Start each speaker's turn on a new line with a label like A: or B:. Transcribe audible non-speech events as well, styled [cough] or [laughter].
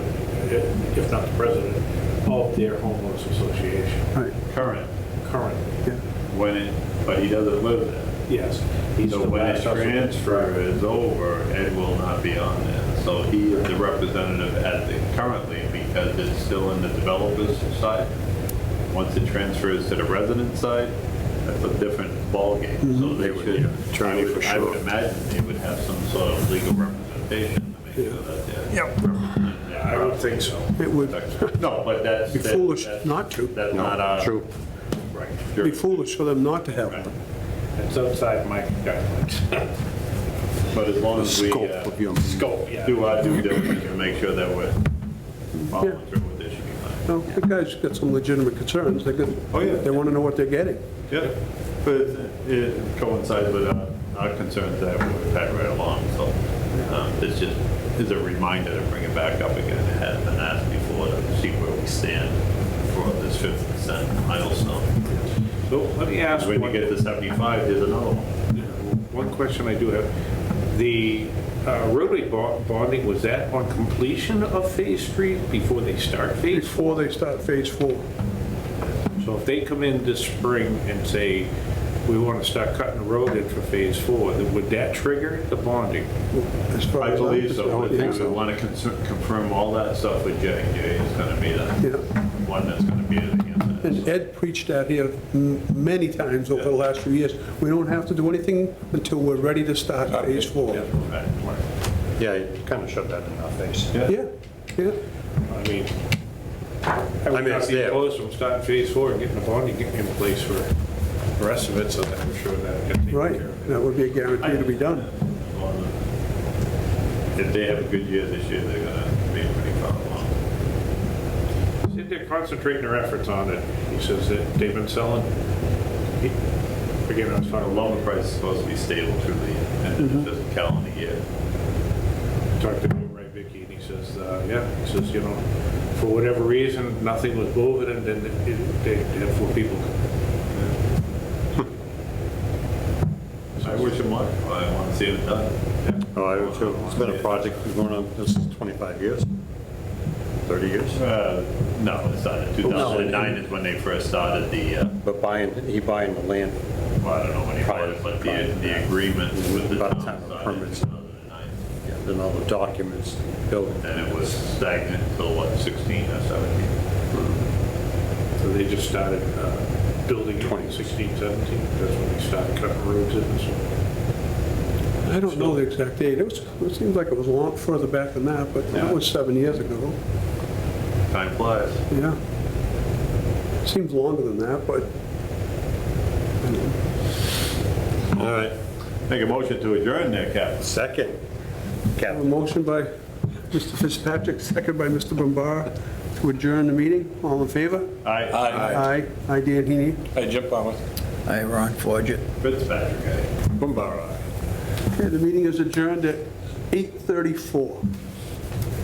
A: if not the president, of their homeowners association.
B: Right,
C: current,
A: Current,
B: yeah.
C: when it, but he doesn't live there.
A: yes. He's
C: So
A: the
C: when his
A: last person.
C: transfer is over, Ed will not be on there. So he is the representative at the, currently, because it's still in the developer's side. Once it transfers to the resident side, that's a different ballgame. So they should,
D: trying
C: I would-
D: for
C: I would
D: sure.
C: imagine they would have some sort of legal representation to make sure that they're.
B: Yep.
C: representing their
A: I would think so.
B: It would
C: No, but that's.
B: be
C: that-
B: foolish
C: that's-
B: not to,
C: That's
D: No,
C: not our.
D: true.
C: Right.
B: be foolish for them not to have
C: Right.
B: one.
A: It's outside my guidelines. [laughs]
C: But as long as we.
D: scope
C: uh,
D: of your-
A: Scope, yeah.
C: Do our due diligence and make sure that we're following
B: Yeah.
C: through with this, should be fine.
B: No, the guys got some legitimate concerns, they could,
C: Oh, yeah.
B: they want to know what they're getting.
C: Yeah, uh, but it- it coincides with our- our concerns that we've had right along, so um, this just is a reminder to bring it back up again. It has been asked before to see where we stand for this 50% milestone.
A: So let me ask
C: When you
A: one-
C: get to 75, there's another one.
A: One question I do have, the uh, roadway bo- bonding, was that on completion of Phase 3 before they start Phase 4?
B: Before they start phase four,
A: So if they come in this spring and say, we want to start cutting the road in for Phase 4, then would that trigger the bonding?
B: as far as.
C: I believe
B: concerned.
C: so. I
B: Yeah.
C: think we want to confirm all that stuff with J and J is going to be the
B: Yeah.
C: one that's going to be it against it.
B: And Ed preached that here m- many times over the last few years. We don't have to do anything until we're ready to start phase Uh, four.
C: Yeah, right, right.
D: Yeah, you kind of shoved that in our face.
B: Yeah, yeah.
A: I mean, I would
D: mean,
A: not
D: it's
A: be
D: there.
A: opposed from starting Phase 4 and getting the bonding in place for the rest of it, so that I'm sure that get taken
B: Right,
A: care of.
B: that would be a guarantee to be done.
C: If they have a good year this year, they're going to be pretty far along.
A: Said They're concentrating their efforts on it. He says that they've been selling, again, I was
C: Our
A: talking,
C: lumber price is supposed to be stable through the end of the fiscal calendar year.
A: talked to him, right, Vicky, and he says, uh, yeah, he says, you know, for whatever reason, nothing was moving, and then it- it- they they had four people.
C: I wish them luck, but I want to see it done.
D: Oh, I would too. It's been a project that's going on, this is 25 years, 30 years.
C: Uh, No, it's not, 2009 is when they first started the, uh,
D: But buying, he buying the land,
C: well, I don't know when he bought it, but the, the agreement with the
D: By the
C: town
D: time the
C: started in
D: permits-
C: 2009.
D: then all the documents, building.
C: And it was stagnant until what, 16 or 17?
A: So they just started uh, building in 2016, 17, that's when they started cutting roads in, so.
B: I don't know the exact date. It was, it seems like it was a lot further back than that, but that was seven years ago,
C: Time flies.
B: yeah. Seems longer than that, but
D: All right,
C: Make a motion to adjourn there, Captain.
B: I
D: second.
B: have
D: Captain.
B: a motion by Mr. Fitzpatrick, second by Mr. Bombara, to adjourn the meeting. All in favor?
C: Aye.
E: Aye.
B: Aye. Aye, Dan Heaney.
E: Hey, Jim Palmer.
F: Hi, Ron Forget.
C: Fitzpatrick, eh? aye.
D: Bumbara.
B: Okay, the meeting is adjourned at 8:34.